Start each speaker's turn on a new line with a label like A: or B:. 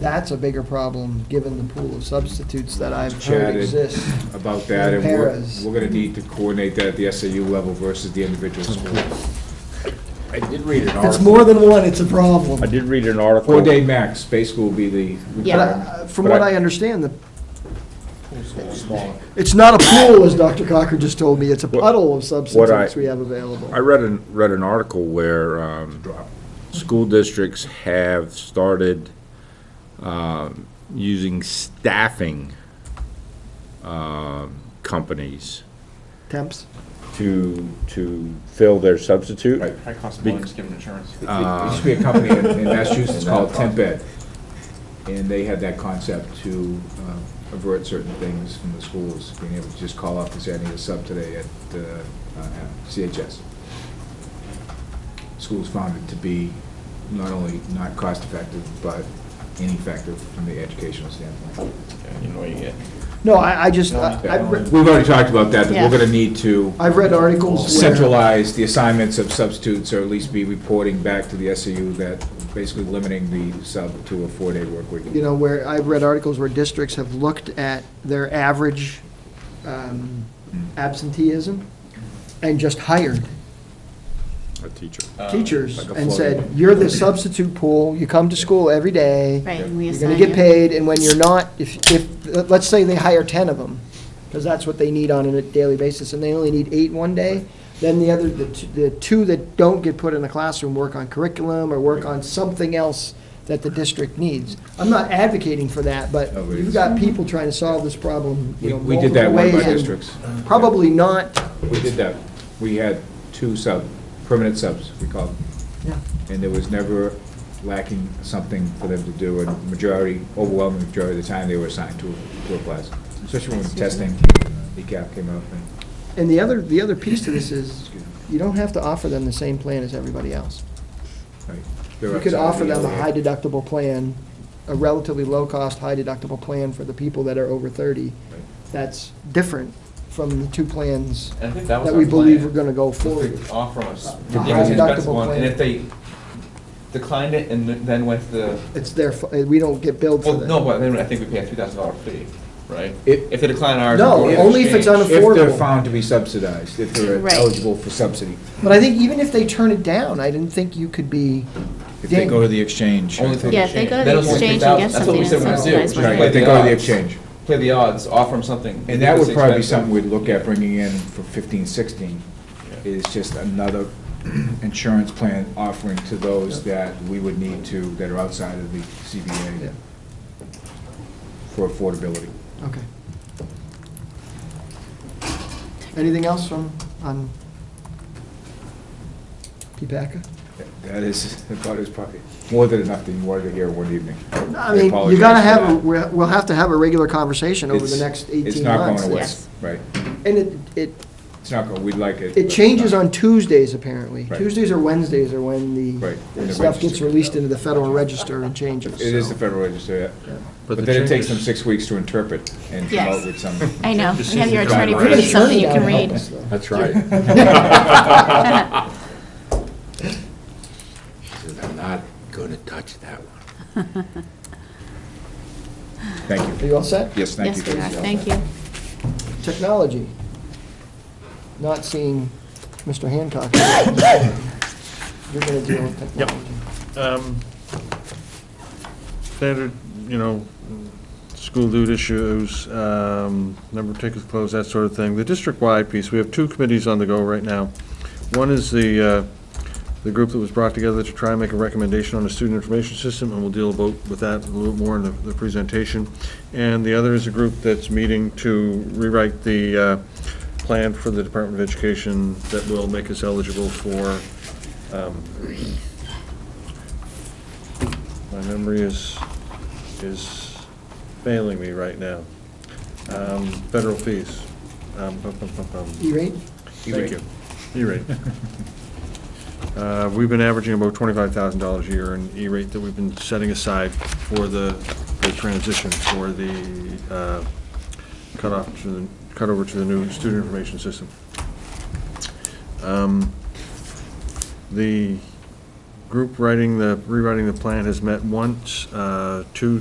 A: that's a bigger problem, given the pool of substitutes that I've heard
B: Chatted.
A: exists.
B: about that, and we're,
A: Paras.
B: we're gonna need to coordinate that at the SAU level versus the individual school.
C: I did read an
A: If it's
C: article,
A: more than one, it's a problem.
C: I did read an article.
B: Four-day max, basically, will be the
A: But I-
B: requirement.
A: I- From
C: But
A: what
C: I-
A: I understand, the
C: Smaller.
A: it's not a pool, as Dr. Cocker just told me, it's a
C: What-
A: puddle of substitutes
C: I-
A: we have available.
C: I read an, read an article where, um, school districts have started, um, using staffing, um, companies
A: Temps?
C: to, to fill their substitute.
B: Right.
D: High cost of money, just give them insurance.
B: It used to be a company in in Massachusetts called Temp Ed, and they had that concept to uh, avert certain things from the schools, being able to just call up and say, I need a sub today at uh, uh, at CHS. Schools found it to be not only not cost-effective, but ineffective from the educational standpoint.
D: You know what you get.
A: No, I, I just, I-
D: Yeah.
A: I've, re-
B: We've already talked about that, that
E: Yeah.
B: we're gonna need to
A: I've read articles where,
B: centralize the assignments of substitutes, or at least be reporting back to the SAU that basically limiting the sub to a four-day work week.
A: you know, where, I've read articles where districts have looked at their average um, absenteeism and just hired
C: A teacher.
A: teachers
B: Uh, like a
A: and
B: floating-
A: said, you're the substitute pool, you come to school every day.
E: Right, and we
A: You're
E: assign
A: gonna
E: you.
A: get paid, and when you're not, if, if, let's say they hire ten of them, because that's what they need on a daily basis, and they only need eight one day, then the other, the, t- the two that don't get put in the classroom work on curriculum or work on something else that the district needs. I'm not advocating for that, but
B: No, it
A: you've
B: is.
A: got people trying to solve this problem, you
B: We
A: know,
B: we did
A: multiple
B: that one
A: ways.
B: by
A: and
B: districts.
A: Probably not,
B: We did that. We had two sub, permanent subs, we called them.
A: yeah,
B: and there was never lacking something for them to do, and majority, overwhelming majority of the time, they were assigned to, a- to a class, especially when testing, ECAP came E up, and,
A: and the other, the other piece to this is,
B: excuse me,
A: you don't have to offer them the same plan as everybody else.
B: right.
A: You could offer them a high deductible plan, a relatively low-cost, high deductible plan for the people that are over 30. That's different from the two plans
D: And I think that was
A: that
D: our
A: we believe
D: plan.
A: we're going to go
D: If
A: forward.
D: they Offer us,
A: The
D: give us the best
A: high-deductible
D: one,
A: plan.
D: and if they declined it and then went to the,
A: It's their, fu- we don't get billed for
D: well,
A: that.
D: no, but then I think we pay a three thousand dollar fee, right?
B: If-
D: If they decline ours.
A: No,
D: we're gonna
A: only if it's
D: change.
A: unaff-
B: If they're
A: affordable.
B: found to be subsidized, if they're
E: Right.
B: eligible for subsidy,
A: But I think even if they turn it down, I didn't think you could be
B: if they go to the exchange. I
D: Only if
B: think.
E: Yeah, if they go to
D: Then
E: the
D: it's only
E: exchange and get
D: 3,000. That's what we
E: something
D: said we're gonna
E: that's
D: do.
E: subsidized by
B: Right,
D: Play
B: if they go to the
D: odds.
B: exchange.
D: Play the odds, offer them something.
B: And that would probably be
D: It's
B: something
D: expensive.
B: we'd look at bringing in for fifteen, sixteen, is just another insurance plan offering to those that we would need to, that are outside of the
A: Yeah.
B: CBA for affordability.
A: Okay. Anything else from, on PPACA?
B: That is, I thought it was probably more than enough that you wanted to hear in one evening.
A: I mean, you
B: apologize
A: got to
B: for
A: have, a-
B: that.
A: we'll we'll have to have a regular conversation over the
B: It's-
A: next 18 months.
B: It's not going away,
E: Yes.
B: right.
A: And it, it
B: It's not going, we'd like it. but
A: It
B: it's
A: changes
B: not.
A: on Tuesdays, apparently.
B: Right.
A: Tuesdays or Wednesdays are when the
B: Right, in the
A: stuff gets
B: register.
A: released into the Federal Register and changes.
B: It is
A: so.
B: the Federal Register, yeah.
A: Yeah.
F: But
B: But
F: the
B: then it takes
F: changes-
B: them six weeks to interpret and come
E: Yes.
B: out with some.
E: I know,
F: Just
E: I have
F: seems
E: your
F: like
E: attorney
F: a
E: put
F: violation.
E: something you can
A: Attorney down to help
E: read.
A: us, though.
F: That's right. I'm not gonna touch that one.
B: Thank
A: Are
B: you.
A: you all set?
B: Yes, thank you.
E: Yes, we are, thank you.
A: Technology. Not seeing Mr. Hancock. You're going to deal with technology.
G: um, Standard, you know, school loot issues, um, number of tickets closed, that sort of thing. The district-wide piece, we have two committees on the go right now. One is the, uh, the group that was brought together to try and make a recommendation on the student information system, and we'll deal about with that a little more in the, the presentation. And the other is a group that's meeting to rewrite the uh, plan for the Department of Education that will make us eligible for um, my memory is, is failing me right now. Um, Federal fees. Um, bum, bum, bum, bum.
A: E-rate?
G: Thank you. E-rate. Uh, We've been averaging about twenty-five thousand dollars a year in E-rate that we've been setting aside for the, the transition, for the uh, cutoff to the, cut over to the new student information system. Um, The group writing the, rewriting the plan has met once, uh, two